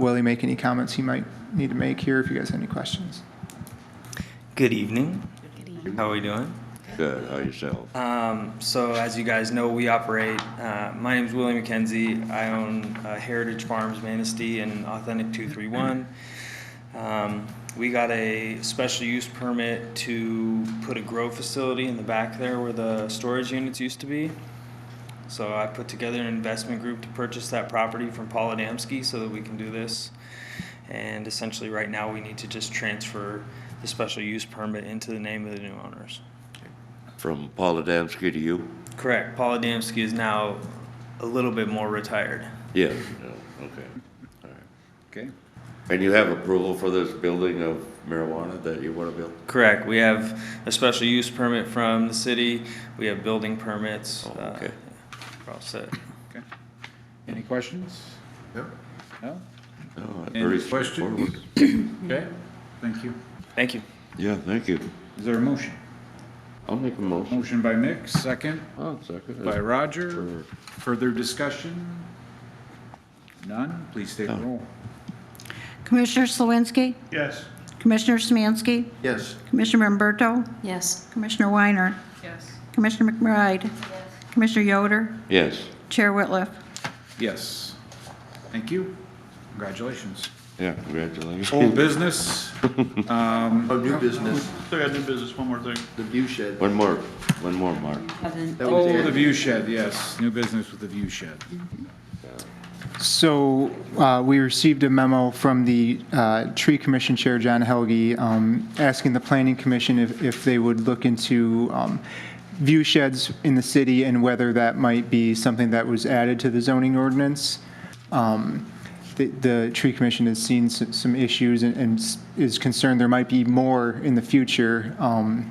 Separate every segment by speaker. Speaker 1: Willie make any comments he might need to make here if you guys have any questions.
Speaker 2: Good evening. How are we doing?
Speaker 3: Good, how yourself?
Speaker 2: Um, so as you guys know, we operate, uh, my name's Willie McKenzie. I own uh, Heritage Farms Manistee and Authentic 231. Um, we got a special use permit to put a grow facility in the back there where the storage units used to be. So I put together an investment group to purchase that property from Paul Adamski so that we can do this. And essentially, right now, we need to just transfer the special use permit into the name of the new owners.
Speaker 3: From Paul Adamski to you?
Speaker 2: Correct. Paul Adamski is now a little bit more retired.
Speaker 3: Yes. yeah, Okay. All right.
Speaker 4: Okay.
Speaker 3: And you have approval for this building of marijuana that you want to build?
Speaker 2: Correct. We have a special use permit from the city. We have building permits.
Speaker 3: Oh,
Speaker 2: Uh,
Speaker 3: okay.
Speaker 2: We're all set.
Speaker 4: Okay. Any questions? No?
Speaker 3: Oh,
Speaker 4: Any
Speaker 3: very
Speaker 4: questions?
Speaker 3: straightforward.
Speaker 4: Okay. Thank you.
Speaker 2: Thank you.
Speaker 3: Yeah, thank you.
Speaker 4: Is there a motion?
Speaker 3: I'll make a motion.
Speaker 4: Motion by Mick, second
Speaker 3: Oh,
Speaker 5: Uh,
Speaker 3: second.
Speaker 4: by Roger.
Speaker 3: Sure.
Speaker 4: Further discussion? None? Please state the roll.
Speaker 6: Commissioner Slawinski? Yes. Commissioner Smansky?
Speaker 1: Yes.
Speaker 6: Commissioner Umberto?
Speaker 7: Yes.
Speaker 6: Commissioner Weiner?
Speaker 7: Yes.
Speaker 6: Commissioner McBride? Commissioner Yoder?
Speaker 3: Yes,
Speaker 6: Chair Whitliff?
Speaker 4: Yes. Thank you. Congratulations.
Speaker 3: yeah, congratulations.
Speaker 4: Old business,
Speaker 5: Oh, new business,
Speaker 8: Still got new business, one more thing.
Speaker 5: the view shed.
Speaker 3: One more, one more, Mark.
Speaker 7: Haven't.
Speaker 5: That was
Speaker 4: oh,
Speaker 5: it.
Speaker 4: the view shed, yes, new business with the view shed.
Speaker 1: So uh, we received a memo from the uh, Tree Commission Chair, John Helge, um, asking the Planning Commission if, if they would look into um, view sheds in the city and whether that might be something that was added to the zoning ordinance. Um, The, the Tree Commission has seen s- some issues and- and s- is concerned there might be more in the future. um,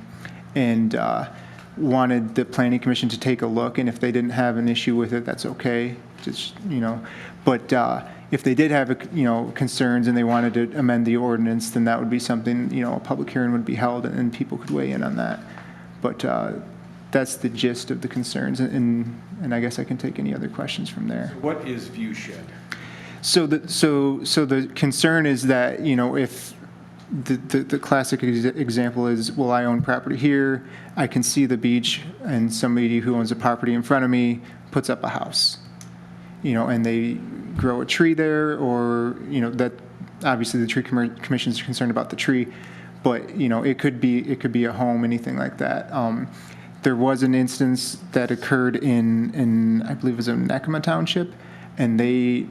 Speaker 1: And uh, wanted the Planning Commission to take a look, and if they didn't have an issue with it, that's okay, just, you know. But uh, if they did have, a c- you know, concerns and they wanted to amend the ordinance, then that would be something, you know, a public hearing would be held and people could weigh in on that. But uh, that's the gist of the concerns, and, and I guess I can take any other questions from there.
Speaker 4: What is view shed?
Speaker 1: So the, so, so the concern is that, you know, if, the, the, the classic ex- example is, well, I own property here, I can see the beach, and somebody who owns a property in front of me puts up a house. You know, and they grow a tree there, or, you know, that, obviously, the tree commer- commission's concerned about the tree, but, you know, it could be, it could be a home, anything like that. Um, there was an instance that occurred in, in, I believe it was in Nakama Township, and they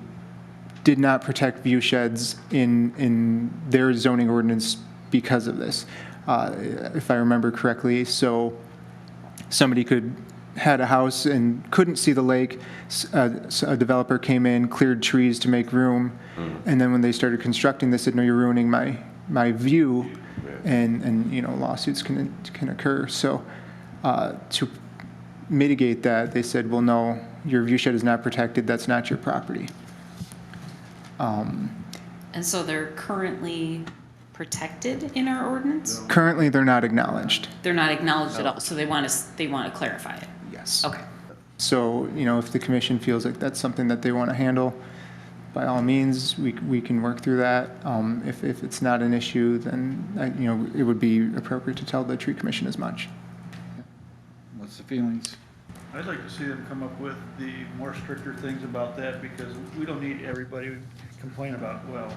Speaker 1: did not protect view sheds in, in their zoning ordinance because of this, uh, if I remember correctly. So somebody could, had a house and couldn't see the lake. S- uh, s- A developer came in, cleared trees to make room. And then when they started constructing, they said, no, you're ruining my, my view. And, and, you know, lawsuits can, can occur. So uh, to mitigate that, they said, well, no, your view shed is not protected. That's not your property.
Speaker 7: And so they're currently protected in our ordinance?
Speaker 1: Currently, they're not acknowledged.
Speaker 7: They're not acknowledged at all, so they want to, they want to clarify it.
Speaker 1: Yes.
Speaker 7: Okay.
Speaker 1: So, you know, if the commission feels like that's something that they want to handle, by all means, we, we can work through that. Um, if, if it's not an issue, then, uh, you know, it would be appropriate to tell the tree commission as much.
Speaker 4: What's the feelings?
Speaker 8: I'd like to see them come up with the more stricter things about that because we don't need everybody complaining about, well,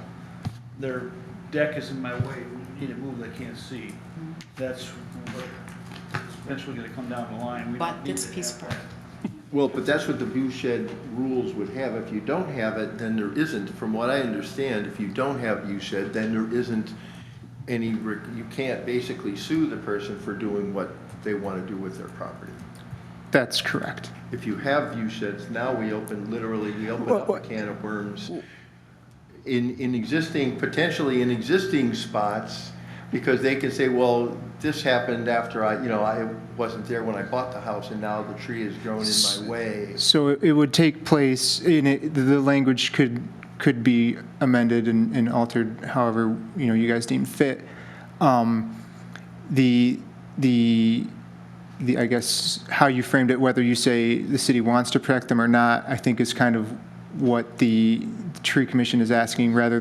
Speaker 8: their deck is in my way, we need to move, they can't see.
Speaker 7: Mm-hmm.
Speaker 8: That's what eventually gonna come down the line. We don't
Speaker 7: But
Speaker 8: need
Speaker 7: it's
Speaker 8: to have
Speaker 7: peaceful.
Speaker 8: that.
Speaker 5: Well, but that's what the view shed rules would have. If you don't have it, then there isn't, from what I understand, if you don't have view shed, then there isn't any, re- you can't basically sue the person for doing what they want to do with their property.
Speaker 1: That's correct.
Speaker 5: If you have view sheds, now we open, literally, we open up a can of worms in, in existing, potentially in existing spots, because they can say, well, this happened after I, you know, I wasn't there when I bought the house, and now the tree has grown in my way.
Speaker 1: So it it would take place, in it, the language could, could be amended and, and altered however, you know, you guys deem fit. Um, The, the, the, I guess, how you framed it, whether you say the city wants to protect them or not, I think is kind of what the, the tree commission is asking rather than